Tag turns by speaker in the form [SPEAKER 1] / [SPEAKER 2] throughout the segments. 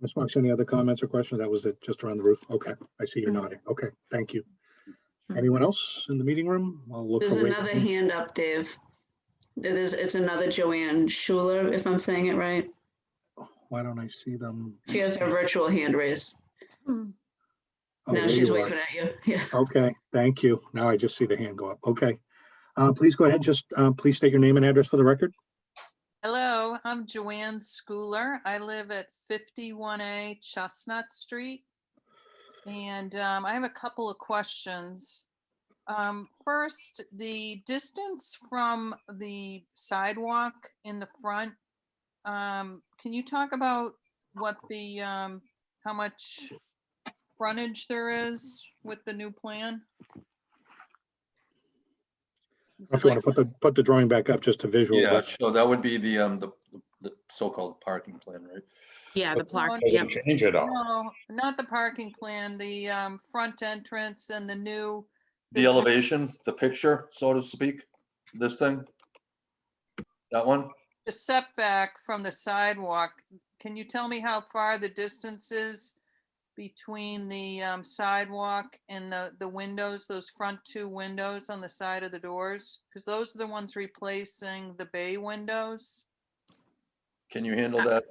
[SPEAKER 1] Ms. Fox, any other comments or questions? That was it, just around the roof? Okay, I see you're
[SPEAKER 2] Mm-hmm.
[SPEAKER 1] nodding. Okay, thank you. Anyone else in the meeting room? I'll look
[SPEAKER 2] There's
[SPEAKER 1] for Wade.
[SPEAKER 2] another hand up, Dave. It is, it's another Joanne Schuler, if I'm saying it right.
[SPEAKER 1] Why don't I see them?
[SPEAKER 2] She has her virtual hand raised.
[SPEAKER 1] Oh,
[SPEAKER 2] Now
[SPEAKER 1] there
[SPEAKER 2] she's
[SPEAKER 1] you are.
[SPEAKER 2] waving at you. Yeah.
[SPEAKER 1] Okay, thank you. Now I just see the hand go up. Okay. Uh, please go ahead, just, uh, please state your name and address for the record.
[SPEAKER 3] Hello, I'm Joanne Schooler. I live at 51A Chestnut Street. And um, I have a couple of questions. Um, First, the distance from the sidewalk in the front. um, Can you talk about what the, um, how much frontage there is with the new plan? Is
[SPEAKER 1] If
[SPEAKER 3] it
[SPEAKER 1] you want to
[SPEAKER 3] like-
[SPEAKER 1] put the, put the drawing back up, just a visual.
[SPEAKER 4] Yeah,
[SPEAKER 1] but-
[SPEAKER 4] so that would be the, um, the, the so-called parking plan, right?
[SPEAKER 5] Yeah, the
[SPEAKER 4] But-
[SPEAKER 5] plaque,
[SPEAKER 3] Doesn't
[SPEAKER 5] yep.
[SPEAKER 6] Change it all.
[SPEAKER 3] No, not the parking plan, the um, front entrance and the new.
[SPEAKER 4] The elevation, the picture, so to speak, this thing? That one?
[SPEAKER 3] The setback from the sidewalk. Can you tell me how far the distance is between the um, sidewalk and the, the windows, those front two windows on the side of the doors? Because those are the ones replacing the bay windows.
[SPEAKER 4] Can you
[SPEAKER 5] Uh,
[SPEAKER 4] handle that?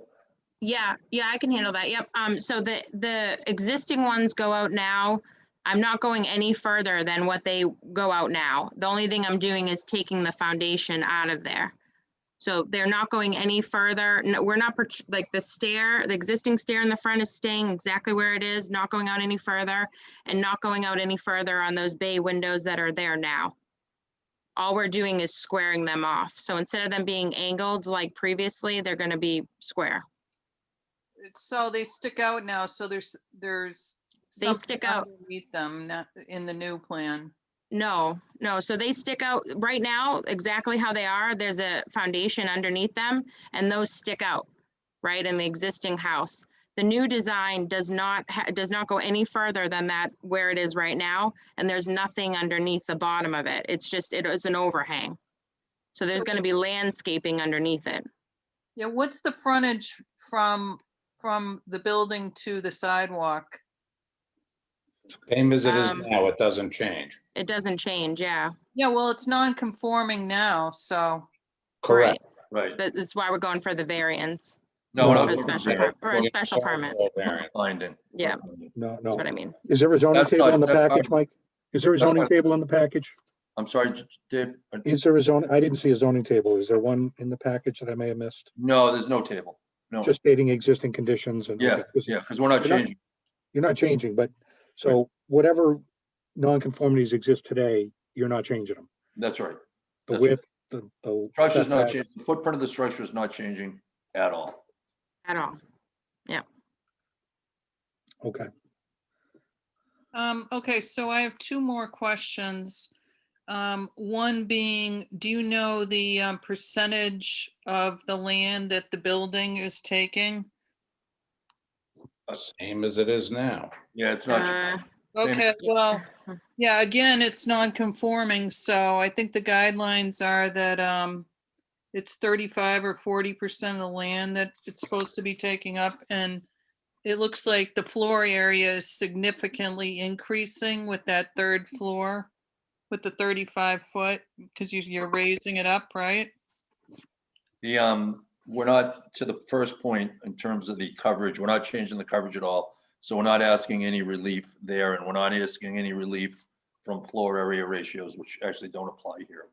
[SPEAKER 5] Yeah, yeah, I can handle that. Yep. Um, so the, the existing ones go out now. I'm not going any further than what they go out now. The only thing I'm doing is taking the foundation out of there. So they're not going any further. No, we're not, protr- like, the stair, the existing stair in the front is staying exactly where it is, not going out any further, and not going out any further on those bay windows that are there now. All we're doing is squaring them off. So instead of them being angled like previously, they're gonna be square.
[SPEAKER 3] It's- So they stick out now, so there's, there's.
[SPEAKER 5] They
[SPEAKER 3] something
[SPEAKER 5] stick out.
[SPEAKER 3] Underneath them, not in the new plan.
[SPEAKER 5] No, no. So they stick out right now exactly how they are. There's a foundation underneath them and those stick out, right, in the existing house. The new design does not, ha- does not go any further than that where it is right now. And there's nothing underneath the bottom of it. It's just, it is an overhang. So there's
[SPEAKER 3] So-
[SPEAKER 5] gonna be landscaping underneath it.
[SPEAKER 3] Yeah, what's the frontage from, from the building to the sidewalk?
[SPEAKER 6] Same as it is
[SPEAKER 5] Um,
[SPEAKER 6] now, it doesn't change.
[SPEAKER 5] It doesn't change, yeah.
[SPEAKER 3] Yeah, well, it's non-conforming now, so,
[SPEAKER 5] Right.
[SPEAKER 6] Correct.
[SPEAKER 4] Right.
[SPEAKER 5] But that's why we're going for the variance,
[SPEAKER 4] No,
[SPEAKER 6] Or
[SPEAKER 4] we're
[SPEAKER 5] or
[SPEAKER 4] not
[SPEAKER 5] a
[SPEAKER 4] looking for
[SPEAKER 5] special,
[SPEAKER 4] variance,
[SPEAKER 5] per- or a special permit.
[SPEAKER 6] Variant.
[SPEAKER 4] Finding.
[SPEAKER 5] Yeah.
[SPEAKER 1] No,
[SPEAKER 5] That's
[SPEAKER 1] no.
[SPEAKER 5] what I mean.
[SPEAKER 1] Is there a zoning
[SPEAKER 4] That's
[SPEAKER 1] table
[SPEAKER 4] fine,
[SPEAKER 1] on the
[SPEAKER 4] that's fine.
[SPEAKER 1] package, Mike? Is there a
[SPEAKER 4] That's
[SPEAKER 1] zoning
[SPEAKER 4] fine.
[SPEAKER 1] table on the package?
[SPEAKER 4] I'm sorry, J- J- Dave. uh,
[SPEAKER 1] Is there a zone, I didn't see a zoning table. Is there one in the package that I may have missed?
[SPEAKER 4] No, there's no table. No,
[SPEAKER 1] Just stating existing conditions and.
[SPEAKER 4] yeah, yeah, because we're not
[SPEAKER 1] We're not-
[SPEAKER 4] changing.
[SPEAKER 1] You're not changing, but, so whatever nonconformities exist today, you're not changing them.
[SPEAKER 4] That's right.
[SPEAKER 1] The
[SPEAKER 4] That's-
[SPEAKER 1] width, the, the.
[SPEAKER 4] Structure's not
[SPEAKER 1] setback.
[SPEAKER 4] changing, the footprint of the structure is not changing at all.
[SPEAKER 5] At all.
[SPEAKER 1] Okay,
[SPEAKER 3] um, okay, so I have two more questions. Um, one being, do you know the um, percentage of the land that the building is taking?
[SPEAKER 6] Same as it is now.
[SPEAKER 4] Yeah, it's not.
[SPEAKER 5] Uh,
[SPEAKER 4] changing. Same.
[SPEAKER 3] Okay, well, yeah, again, it's non-conforming, so I think the guidelines are that, um, it's thirty-five or forty percent of the land that it's supposed to be taking up, and it looks like the floor area is significantly increasing with that third floor, with the thirty-five foot, because you, you're raising it up, right?
[SPEAKER 4] The, um, we're not, to the first point, in terms of the coverage, we're not changing the coverage at all. So we're not asking any relief there, and we're not asking any relief from floor area ratios, which actually don't apply here.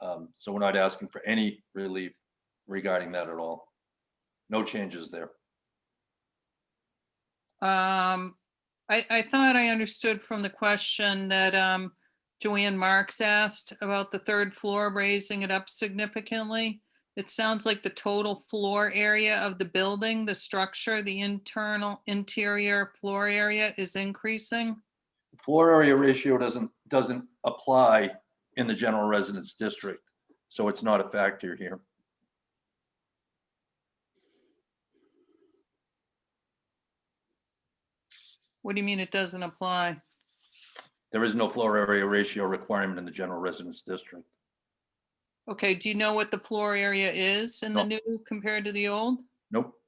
[SPEAKER 4] Um, so we're not asking for any relief regarding that at all. No changes there.
[SPEAKER 3] Um, I, I thought I understood from the question that, um, Joanne Marks asked about the third floor, raising it up significantly. It sounds like the total floor area of the building, the structure, the internal interior floor area is increasing.
[SPEAKER 4] Floor area ratio doesn't, doesn't apply in the general residence district, so it's not a factor here.
[SPEAKER 3] What do you mean it doesn't apply?
[SPEAKER 4] There is no floor area ratio requirement in the general residence district.
[SPEAKER 3] Okay, do you know what the floor area is in the new compared to the old?
[SPEAKER 4] Nope,